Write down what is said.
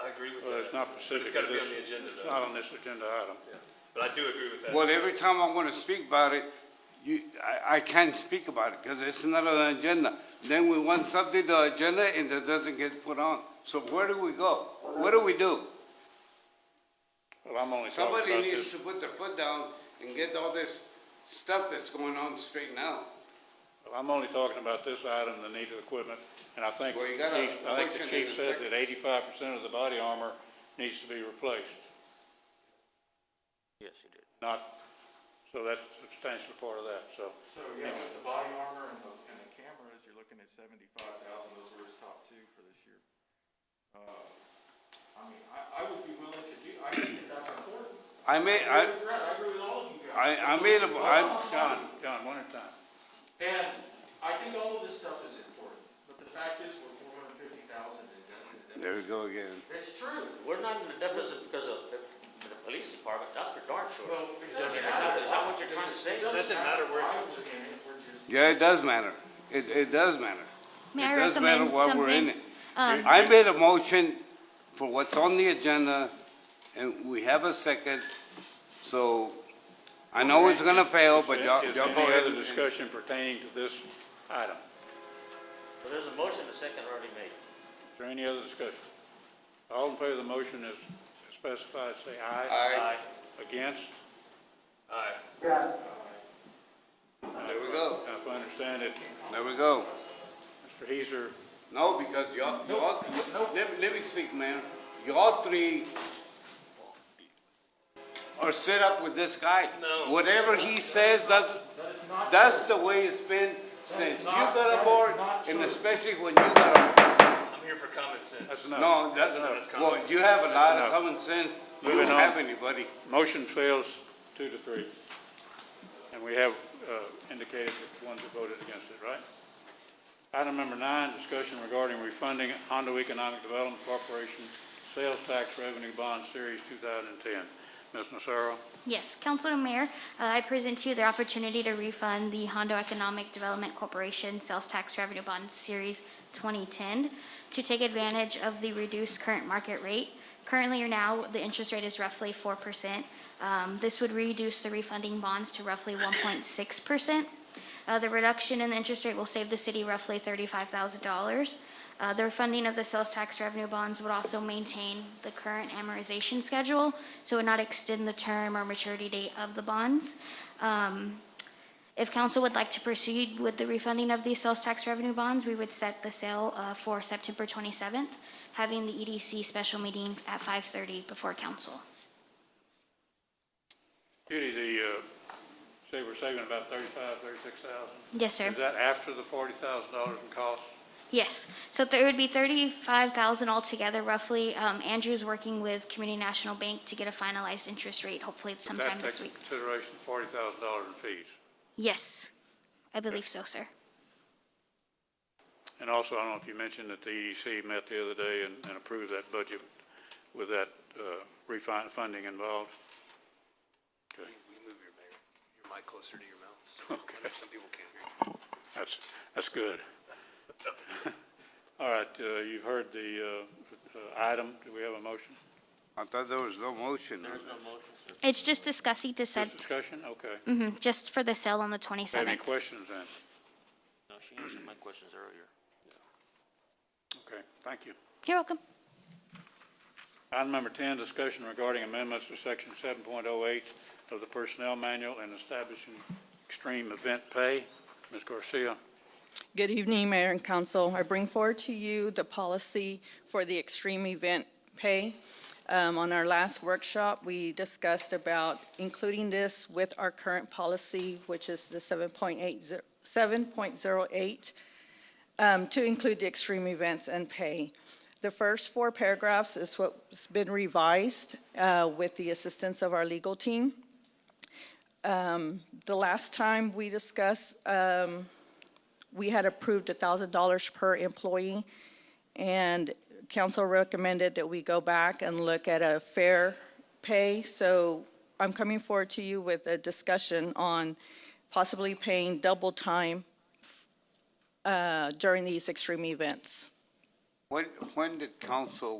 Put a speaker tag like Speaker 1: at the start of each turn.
Speaker 1: I agree with
Speaker 2: Well, it's
Speaker 1: that,
Speaker 2: not specific.
Speaker 1: It's gotta be
Speaker 2: This-
Speaker 1: on the agenda,
Speaker 2: It's
Speaker 1: though.
Speaker 2: not on this agenda item.
Speaker 1: but I do agree with that.
Speaker 3: Well, every time I want to speak about it, you, I, I can't speak about it because it's not on the agenda. Then we want something to the agenda and it doesn't get put on. So where do we go? What do we do?
Speaker 2: Well, I'm only talking about
Speaker 3: Somebody needs
Speaker 2: this.
Speaker 3: to put their foot down and get all this stuff that's going on straightened out.
Speaker 2: well, I'm only talking about this item, the need of equipment. And I think,
Speaker 3: Well, you got a
Speaker 2: Chief- I think
Speaker 3: motion
Speaker 2: the
Speaker 3: and
Speaker 2: chief
Speaker 3: a
Speaker 2: said
Speaker 3: second.
Speaker 2: that eighty-five percent of the body armor needs to be replaced,
Speaker 4: Yes, he did.
Speaker 2: not, so that's a substantial part of that, so.
Speaker 5: So, yeah, with the body armor and the, and the cameras, you're looking at seventy-five thousand, those were his top two for this year. Uh, I mean, I, I would be willing to do, I think that's important.
Speaker 3: I made, I,
Speaker 5: I agree, I agree with all of you guys.
Speaker 3: I, I made a, I,
Speaker 2: John, John, one at a time.
Speaker 5: And I think all of this stuff is important, but the fact is, we're four hundred fifty thousand in debt.
Speaker 3: there we go again.
Speaker 5: It's true.
Speaker 4: We're not in the deficit because of the, the police department, that's for darn sure.
Speaker 5: Well, it doesn't
Speaker 4: Is that-
Speaker 5: matter.
Speaker 4: is that what you're trying to say?
Speaker 5: It doesn't matter where.
Speaker 3: Yeah, it does matter. It, it does matter.
Speaker 6: May I
Speaker 3: It does matter
Speaker 6: recommend
Speaker 3: why we're in it.
Speaker 6: something? Um,
Speaker 3: I made a motion for what's on the agenda, and we have a second, so I know it's gonna fail, but y'all,
Speaker 2: Is there
Speaker 3: y'all go
Speaker 2: any
Speaker 3: ahead
Speaker 2: other
Speaker 3: and
Speaker 2: discussion pertaining to this item?
Speaker 4: So there's a motion, a second already made.
Speaker 2: Is there any other discussion? All in favor of the motion is specified, say aye.
Speaker 3: Aye.
Speaker 2: Against?
Speaker 1: Aye.
Speaker 3: There we go.
Speaker 2: Now, If I understand it,
Speaker 3: There we go.
Speaker 2: Mr. Heiser,
Speaker 3: No, because y'all, y'all, let, me- let me speak, Mayor. Y'all three are set up with this guy.
Speaker 1: No.
Speaker 3: Whatever he says, that's, that's the way it's been since you got aboard, and especially when you got aboard.
Speaker 1: I'm here for common sense.
Speaker 2: that's enough.
Speaker 3: No, that's,
Speaker 1: That's
Speaker 3: well,
Speaker 1: common
Speaker 3: you have a lot
Speaker 2: That's
Speaker 3: of
Speaker 2: enough.
Speaker 3: common sense. You
Speaker 2: Moving
Speaker 3: don't
Speaker 2: on.
Speaker 3: have anybody.
Speaker 2: Motion fails two to three. And we have uh, indicated the ones that voted against it, right? Item number nine, discussion regarding refunding Hondo Economic Development Corporation Sales Tax Revenue Bond Series 2010. Ms. Nocero?
Speaker 6: Yes, Council and Mayor, uh, I present to you the opportunity to refund the Hondo Economic Development Corporation Sales Tax Revenue Bond Series 2010 to take advantage of the reduced current market rate. Currently or now, the interest rate is roughly 4%. Um, This would reduce the refunding bonds to roughly 1.6%. Uh, The reduction in the interest rate will save the city roughly $35,000. Uh, The refunding of the sales tax revenue bonds would also maintain the current amortization schedule, so would not extend the term or maturity date of the bonds. Um, If council would like to proceed with the refunding of these sales tax revenue bonds, we would set the sale uh, for September 27th, having the EDC special meeting at 5:30 before council.
Speaker 2: Judy, the, uh, say we're saving about 35, 36,000?
Speaker 6: Yes, sir.
Speaker 2: Is that after the $40,000 in costs?
Speaker 6: Yes, so there would be thirty-five thousand altogether roughly. Um, Andrew's working with Community National Bank to get a finalized interest rate, hopefully it's
Speaker 2: Does that
Speaker 6: sometime this
Speaker 2: take
Speaker 6: week.
Speaker 2: into Consideration $40,000 in fees.
Speaker 6: Yes, I believe so, sir.
Speaker 2: And also, I don't know if you mentioned that the EDC met the other day and and approved that budget with that uh, refin- funding involved.
Speaker 1: Will
Speaker 2: Okay,
Speaker 1: you move your, your mic closer to your mouth? so
Speaker 2: Okay.
Speaker 1: Some people can't hear you.
Speaker 2: that's, that's good. All right, uh, you've heard the uh, uh, item. Do we have a motion?
Speaker 3: I thought there was no motion on this.
Speaker 6: It's just discussing to said,
Speaker 2: Just discussion? Okay.
Speaker 6: mhm, just for the sale on
Speaker 2: Have
Speaker 6: the
Speaker 2: any
Speaker 6: twenty-seventh.
Speaker 2: questions then?
Speaker 4: No, she answered my questions earlier.
Speaker 2: Okay, thank you.
Speaker 6: You're welcome.
Speaker 2: Item number 10, discussion regarding amendments to Section 7.08 of the Personnel Manual and establishing extreme event pay. Ms. Garcia?
Speaker 7: Good evening, Mayor and Council. I bring forward to you the policy for the extreme event pay. Um, On our last workshop, we discussed about including this with our current policy, which is the 7.80 7.08, um, to include the extreme events and pay. The first four paragraphs is what's been revised uh, with the assistance of our legal team. Um, The last time we discussed um, we had approved $1,000 per employee, and council recommended that we go back and look at a fair pay. So I'm coming forward to you with a discussion on possibly paying double time uh, during these extreme events.
Speaker 3: When, when did council